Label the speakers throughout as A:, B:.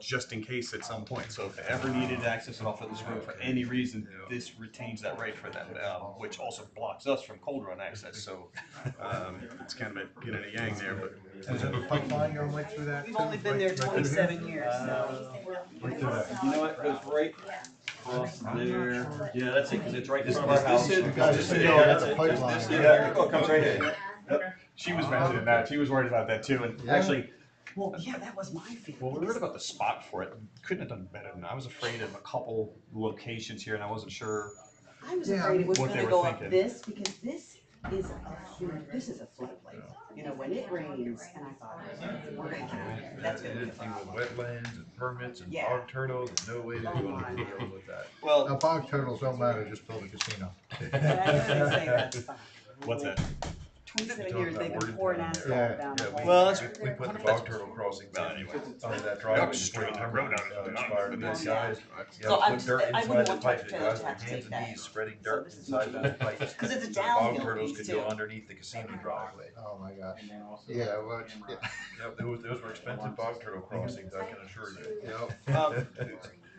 A: just in case at some point. So if they ever needed to access it off of this road for any reason, this retains that right for them, um, which also blocks us from cold run access. So um, it's kind of a yin and a yang there, but.
B: Is it a pipeline going right through that?
C: We've only been there
B: Right through here?
C: twenty-seven years, so.
B: Right through that.
D: You know what, goes right across there, yeah, that's it, cause it's right in front of our
B: Is
D: house.
B: this it?
D: This is it,
B: Yeah,
D: yeah,
B: that's a
D: it.
B: pipeline.
D: This is it, yeah, it comes right in.
A: She was mentioning that. She was worried about that too. And
B: Yeah.
A: actually,
C: Well, yeah, that was my feeling.
A: well, we were worried about the spot for it. Couldn't have done better than I was afraid of a couple locations here and I wasn't sure.
C: I was
B: Yeah,
C: afraid it was
A: what they
C: gonna
A: were
C: go up
A: thinking.
C: this, because this is a, huge- this is a floodplain. You know, when it rains, and I thought, we're gonna, get- that's gonna be a
E: Anything
C: problem.
E: with wetlands and permits and
C: Yeah. Oh
E: bog turtles, there's no way they're gonna deal with that.
A: Well,
B: Now, bog turtles don't matter, just build a casino.
C: That's what I say, that's fine.
A: what's that?
C: Twenty-seven
E: Don't
C: years,
E: have
C: they've
E: wording
C: been pouring
E: down
C: asphalt
B: there. Yeah,
C: down.
E: Yeah,
C: the
E: we,
C: whole-
A: Well, that's-
E: we put the bog turtle crossing
A: Well,
E: down
A: anyway.
E: under that driveway.
A: Straight
E: between
A: up.
E: timber and, uh, Expired, and these guys, you
C: So
E: gotta
C: I'm
E: put
C: just-
E: dirt
C: I wouldn't
E: inside the
C: want my
E: pipe, the
C: trailer
E: guys
C: to have
E: with
C: to
E: hands
C: take
E: and
C: that.
E: knees spreading
C: So
E: dirt
C: this is
E: inside
C: not-
E: that pipe.
C: 'Cause it's a
E: The bog
C: downhill
E: turtles
C: piece
E: could go
C: too. Uh-huh.
E: underneath the casino driveway.
B: Oh, my gosh.
F: And then also
B: Yeah, well, it's-
F: camera.
B: yeah.
E: Yep, those, those were expensive bog turtle crossings, I can assure you.
B: Yep.
A: Um,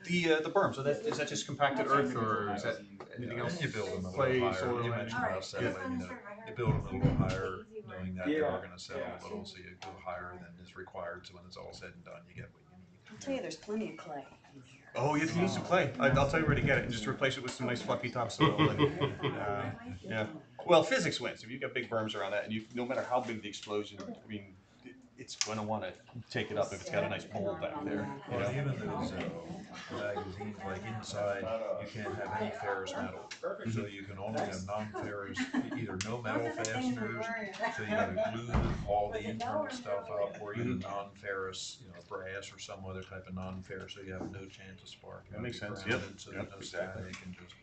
A: The, uh, the berm, so that, is that just compacted earth or is that anything else?
E: You build them a
A: Clay,
E: little higher,
A: soil,
E: you
A: and-
E: mentioned about settling, you know, you build them a little higher, knowing that they are gonna settle a little, so you go higher than is required, so when it's all said and done, you get what you need.
C: I'll tell you, there's plenty of clay in here.
A: Oh, if you need some clay, I- I'll tell you where to get it and just replace it with some nice fluffy topsoil. and, uh, Yeah, well, physics wins. If you've got big berms around that and you, no matter how big the explosion, I mean, it- it's gonna wanna take it up if it's got a nice mold back there. you
E: Well,
A: know?
E: even those uh, magazines, like inside, you can't have any ferrous metal. So you can only have non-ferrous, e-, either no metal fasteners, so you gotta glue the- all the internal stuff up, or either non-ferrous, you know, brass or some other type of non-ferrous, so you have no chance of spark. You
A: That makes
E: gotta be
A: sense, yep,
E: grounded, So there's
A: yep,
E: no
A: exactly.
E: static and just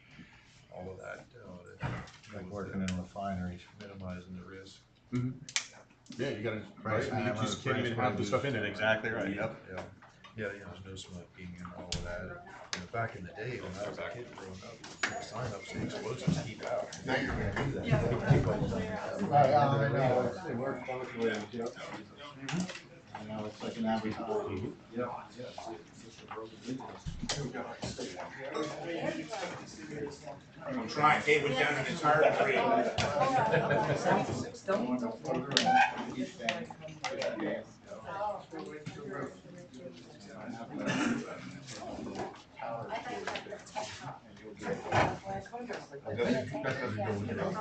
E: all of that, uh, you know, to-
B: Like working in refineries.
E: minimizing the risk.
A: Yeah, you gotta,
B: Right,
A: you just can't even have the stuff in it, exactly right, yep.
E: Yeah, yeah, you know, there's no smoking and all of that. You know, back in the day, when I was a kid growing up, sign up saying explosives keep out. Now you're gonna do that.
B: Right, I know.
F: They were calculated, yeah. You know, it's like an advertisement. Yeah, yeah.
G: I'm trying, David down in his heart rate.
F: With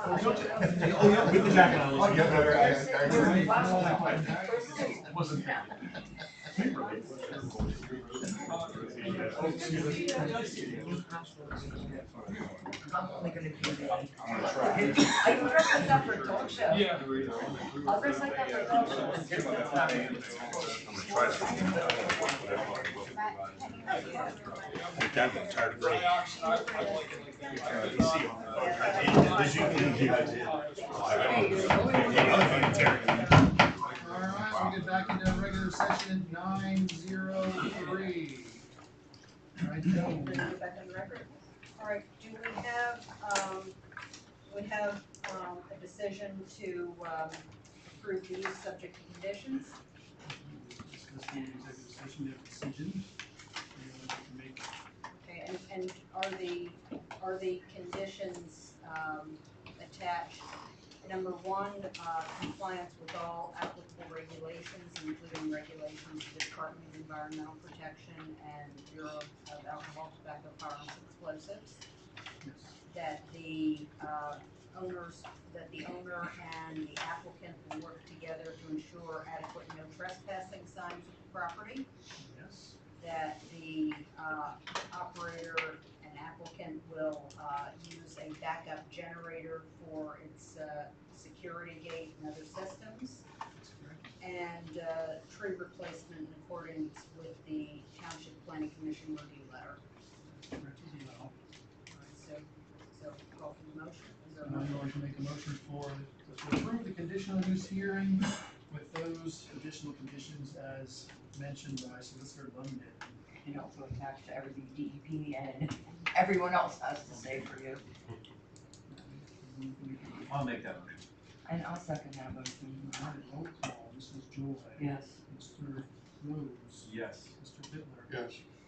F: the jacket on.
G: I'm gonna try.
H: I'm dressed up for a talk show.
F: Yeah.
H: I'll dress like that for a talk show. It's just it's not-
E: I'm gonna try
G: I'm tired of green. Did you- did you-
H: Hey, you're the only one.
B: All right, we get back into regular session nine zero three. Right, Joe.
H: Bring it back on record. All right, do we have, um, we have, um, a decision to, um, approve these subject to conditions?
I: discussing the executive session, we have a decision. Anyone like to make
H: Okay, and, and are the, are the conditions, um, attached? Number one, uh, compliance with all applicable regulations, including regulations of the Department of Environmental Protection and Bureau of Alcohol, Tobacco, Firearms, and Explosives.
I: Yes.
H: That the, uh, owners, that the owner and the applicant will work together to ensure adequate no trespassing signs at the property
I: yes?
H: that the uh, operator and applicant will uh, use a backup generator for its uh, security gate and other systems,
I: That's correct.
H: and uh, tree replacement in accordance with the Township Planning Commission review letter.
I: That's correct as well.
H: All right, So, so call for the motion. Is there a
I: And I'm
H: motion?
I: going to make a motion for, to approve the conditional use hearing with those additional conditions as mentioned by Solicitor Lundman.
J: and also attached to everything DEP and everyone else has to say for you.
F: I'll make that one.
J: And I'll second that
I: And
J: motion.
I: we have a roll call, Mrs. Joy.
J: Yes.
I: Mr. Rhodes.
F: Yes.
I: Mr. Bitler.